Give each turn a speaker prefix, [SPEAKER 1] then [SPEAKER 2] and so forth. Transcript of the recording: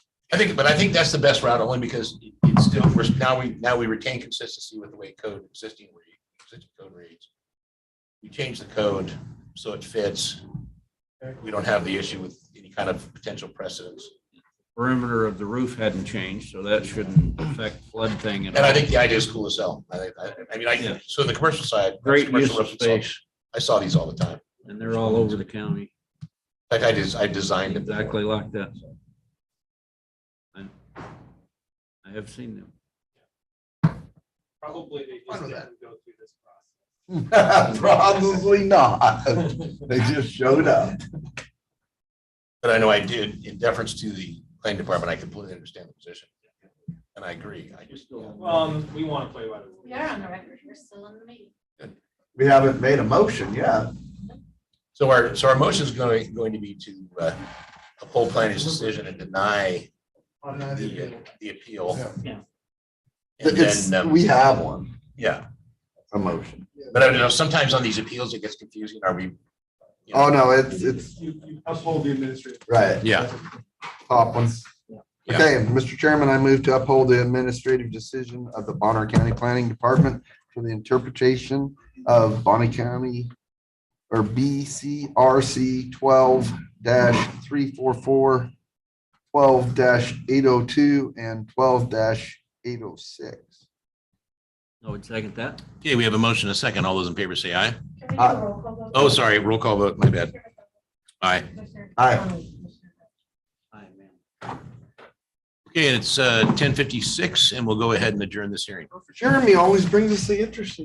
[SPEAKER 1] I think, but I think that's the best route only because it's still, we're, now we, now we retain consistency with the way code existing, re- existing code reads. You change the code so it fits. We don't have the issue with any kind of potential precedents.
[SPEAKER 2] Perimeter of the roof hadn't changed, so that shouldn't affect flood thing at
[SPEAKER 1] And I
[SPEAKER 2] all.
[SPEAKER 1] think the idea is cool as hell. I, I, I mean,
[SPEAKER 2] Yeah.
[SPEAKER 1] I, so the commercial side.
[SPEAKER 2] Great
[SPEAKER 1] commercial
[SPEAKER 2] use of
[SPEAKER 1] restaurants,
[SPEAKER 2] space,
[SPEAKER 1] I saw these all the time.
[SPEAKER 2] and they're all over the county,
[SPEAKER 1] In fact, I just, I designed them.
[SPEAKER 2] exactly like that. And I have seen them.
[SPEAKER 3] Probably they
[SPEAKER 1] Fine
[SPEAKER 3] just
[SPEAKER 1] with
[SPEAKER 3] didn't go through this process.
[SPEAKER 4] Probably not. They just showed up.
[SPEAKER 1] But I know I did, in deference to the planning department, I completely understand the position. And I agree. I just,
[SPEAKER 3] Um, we want to play by the rules.
[SPEAKER 5] We are on the record, we're still in the meeting.
[SPEAKER 4] We haven't made a motion yet.
[SPEAKER 1] so our, so our motion is going, going to be to uh, uphold planning's decision and deny the, uh, the appeal.
[SPEAKER 3] Yeah.
[SPEAKER 1] And
[SPEAKER 4] It's,
[SPEAKER 1] then, um,
[SPEAKER 4] we have one,
[SPEAKER 1] yeah,
[SPEAKER 4] a motion.
[SPEAKER 1] but I don't know, sometimes on these appeals, it gets confusing. Are we? you know,
[SPEAKER 4] Oh, no, it's, it's,
[SPEAKER 6] You, you uphold the administrative.
[SPEAKER 4] right,
[SPEAKER 1] Yeah,
[SPEAKER 4] top one.
[SPEAKER 1] Yeah.
[SPEAKER 4] Okay, Mr. Chairman, I move to uphold the administrative decision of the Bonner County Planning Department for the interpretation of Bonner County or BCRC twelve three four four, twelve eight oh two, and twelve eight oh six.
[SPEAKER 2] I would second that.
[SPEAKER 1] Okay, we have a motion, a second. All those in favor say aye.
[SPEAKER 5] Can we do
[SPEAKER 4] Uh,
[SPEAKER 5] a roll call vote?
[SPEAKER 1] Oh, sorry, roll call vote, my bad. Aye.
[SPEAKER 5] Commissioner
[SPEAKER 4] Aye.
[SPEAKER 5] Conley, Commissioner
[SPEAKER 2] I am.
[SPEAKER 1] Okay, and it's ten uh, fifty-six, and we'll go ahead and adjourn this hearing.
[SPEAKER 4] Jeremy always brings us the interesting.